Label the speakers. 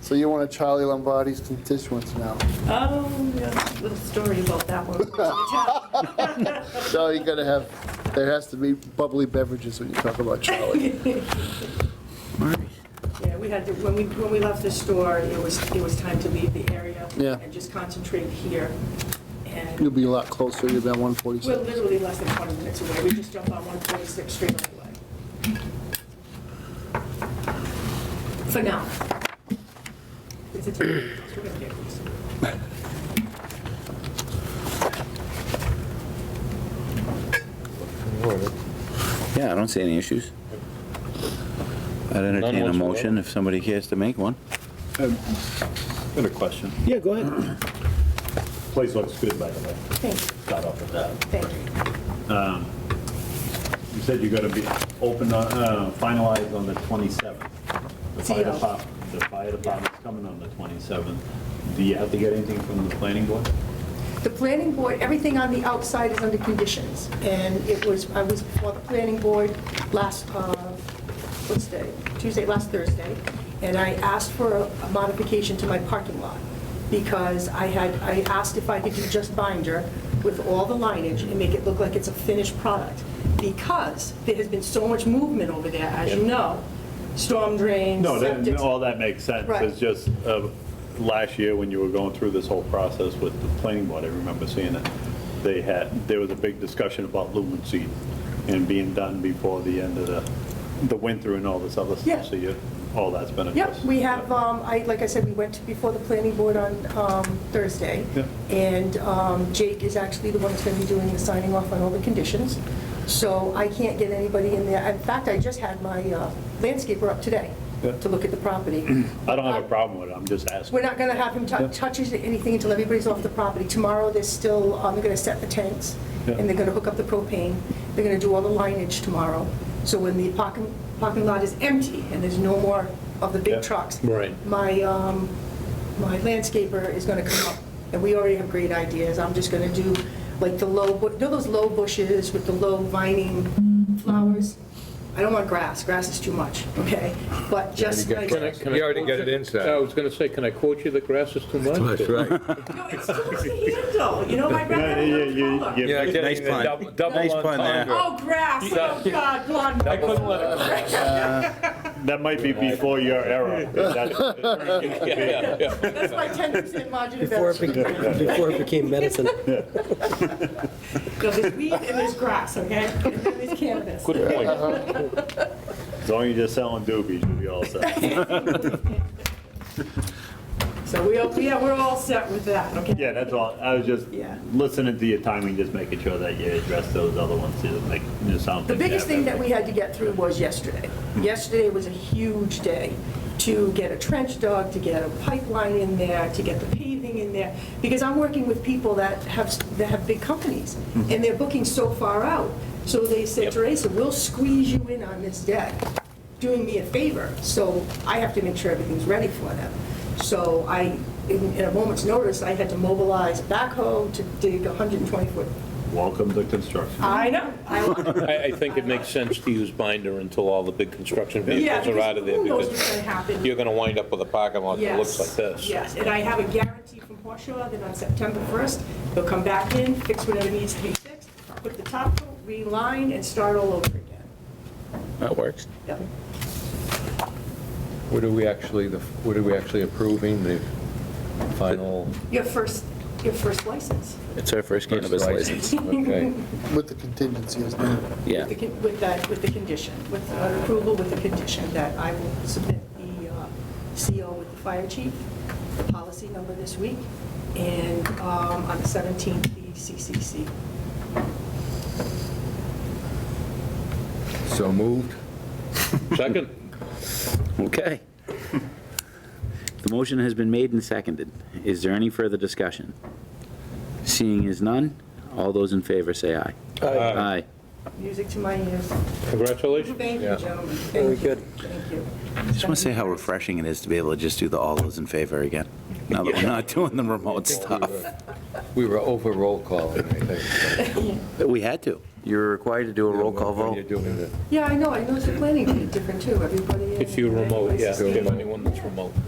Speaker 1: So you're one of Charlie Lombardi's constituents now.
Speaker 2: Oh, yeah, little story about that one.
Speaker 1: So you gotta have, there has to be bubbly beverages when you talk about Charlie.
Speaker 2: Yeah, we had, to- when we, when we left the store, it was, it was time to leave the area.
Speaker 1: Yeah.
Speaker 2: And just concentrate here.
Speaker 1: You'll
Speaker 2: And
Speaker 1: be a lot closer to that
Speaker 2: we're
Speaker 1: 146.
Speaker 2: literally less than 20 minutes away. We just jumped on 146 straight away. For now. It's a three, we're gonna get these.
Speaker 3: Yeah, I don't see any issues. I'd entertain a
Speaker 4: whatsoever.
Speaker 3: motion if somebody cares to make one.
Speaker 4: Got a question.
Speaker 3: Yeah, go ahead.
Speaker 4: Place looks good, by the way.
Speaker 2: Thank you,
Speaker 4: Start off with that.
Speaker 2: thank you.
Speaker 4: You said you're gonna be open, on- uh, finalized on the 27th. The fire
Speaker 2: Zero.
Speaker 4: department, the fire department's coming on the 27th. Do you have to get anything from the planning board?
Speaker 2: The planning board, everything on the outside is under conditions, and it was, I was before the planning board last, uh, what's day? Tuesday, last Thursday, and I asked for a a modification to my parking lot, because I had, I asked if I could do just binder with all the lineage and make it look like it's a finished product, because there has been so much movement over there, as you know, storm drains,
Speaker 4: No, that-
Speaker 2: septic.
Speaker 4: all that makes sense.
Speaker 2: Right.
Speaker 4: It's just, uh, last year, when you were going through this whole process with the planning board, I remember seeing it. They had, there was a big discussion about lumen seed and being done before the end of the, the winter and all this other
Speaker 2: Yeah.
Speaker 4: stuff. So you, all that's been addressed.
Speaker 2: Yep, we have, um, I, like I said, we went to before the planning board on um, Thursday.
Speaker 4: Yeah.
Speaker 2: And um, Jake is actually the one that's going to be doing the signing off on all the conditions. So I can't get anybody in there. In fact, I just had my uh, landscaper up today
Speaker 4: Yeah.
Speaker 2: to look at the property.
Speaker 4: I don't have a problem with it, I'm just asking.
Speaker 2: We're not going to have him tou- touch anything until everybody's off the property. Tomorrow, they're still, um, they're going to set the tents,
Speaker 4: Yeah.
Speaker 2: and they're going to hook up the propane. They're going to do all the lineage tomorrow. So when the parking, parking lot is empty and there's no more of the
Speaker 4: Yeah.
Speaker 2: big trucks.
Speaker 4: Right.
Speaker 2: My, um, my landscaper is going to come up, and we already have great ideas. I'm just going to do like the low, bu- you know those low bushes with the low vining flowers? I don't want grass, grass is too much, okay? But just
Speaker 5: got
Speaker 2: like.
Speaker 5: grass.
Speaker 6: Can I
Speaker 5: You already
Speaker 6: quote
Speaker 5: got it inside.
Speaker 6: I was going to say, can I quote you, the grass is too much?
Speaker 5: right.
Speaker 2: No, it's too much to handle, you know, I'd rather
Speaker 4: Yeah,
Speaker 2: have
Speaker 4: yeah, yeah,
Speaker 2: a little color.
Speaker 4: yeah.
Speaker 5: Yeah,
Speaker 4: Nice
Speaker 5: getting
Speaker 3: pun.
Speaker 5: the double, double
Speaker 3: Nice pun there.
Speaker 5: entendre.
Speaker 2: Oh, grass, oh, God, blonde.
Speaker 6: I couldn't let it go.
Speaker 4: That might be before your era. That's-
Speaker 6: Yeah, yeah, yeah.
Speaker 2: That's my 10% margin of
Speaker 7: Before it
Speaker 2: error.
Speaker 7: became, before it became medicine.
Speaker 2: No, There's weed and there's grass, okay? And then there's cannabis.
Speaker 6: Good point.
Speaker 4: As long as you're selling doobies, you'll be all set.
Speaker 2: So we, all- yeah, we're all set with that, okay?
Speaker 4: Yeah, that's all, I was just
Speaker 2: Yeah.
Speaker 4: listening to your timing, just making sure that you address those other ones, too, like, you know, sound.
Speaker 2: The biggest thing that we had to get through was yesterday. Yesterday was a huge day to get a trench dug, to get a pipeline in there, to get the paving in there, because I'm working with people that have, that have big companies,
Speaker 6: Mm-hmm.
Speaker 2: and they're booking so far out. So they said, Teresa, we'll squeeze you in on this day, doing me a favor, so I have to make sure everything's ready for them. So I, in in a moment's notice, I had to mobilize backhoe to dig 120-foot.
Speaker 4: Welcome to construction.
Speaker 2: I know, I want it.
Speaker 6: I, I think it makes sense to use binder until all the big construction
Speaker 2: Yeah,
Speaker 6: vehicles are out of there,
Speaker 2: who knows what's
Speaker 6: because
Speaker 2: gonna happen?
Speaker 6: you're going to wind up with a parking lot that looks like this.
Speaker 2: Yes, and I have a guarantee from Horshaw that on September 1st, they'll come back in, fix whatever needs to be fixed, put the top coat, reline, and start all over again.
Speaker 5: That works.
Speaker 2: Yep.
Speaker 5: What are we actually, the what are we actually approving, the final?
Speaker 2: Your first, your first license
Speaker 8: It's our first cannabis license.
Speaker 5: Okay.
Speaker 1: With the contingency, isn't it?
Speaker 8: Yeah.
Speaker 2: with the con- with that, with the condition, with uh, approval with the condition that I will submit the uh, CO with the fire chief, the policy number this week, and um, on the 17th, the CCC.
Speaker 5: So moved?
Speaker 6: Second?
Speaker 3: Okay. The motion has been made and seconded. Is there any further discussion? Seeing as none, all those in favor say aye. Aye.
Speaker 2: Music to my ears.
Speaker 6: Congratulations.
Speaker 2: Thank you,
Speaker 5: Yeah.
Speaker 2: gentlemen.
Speaker 7: Very
Speaker 2: Thank you.
Speaker 7: good.
Speaker 2: Thank you.
Speaker 3: Just want to say how refreshing it is to be able to just do the all those in favor again, now that we're not doing the remote stuff.
Speaker 5: We were over roll calling, I think.
Speaker 3: We had to. You're required to do a roll call
Speaker 5: When you're
Speaker 3: vote.
Speaker 5: doing it.
Speaker 7: Yeah, I know, I know it's the planning is different too, everybody.
Speaker 6: If you're remote, yeah, if
Speaker 7: everybody's-
Speaker 6: you have anyone that's remote.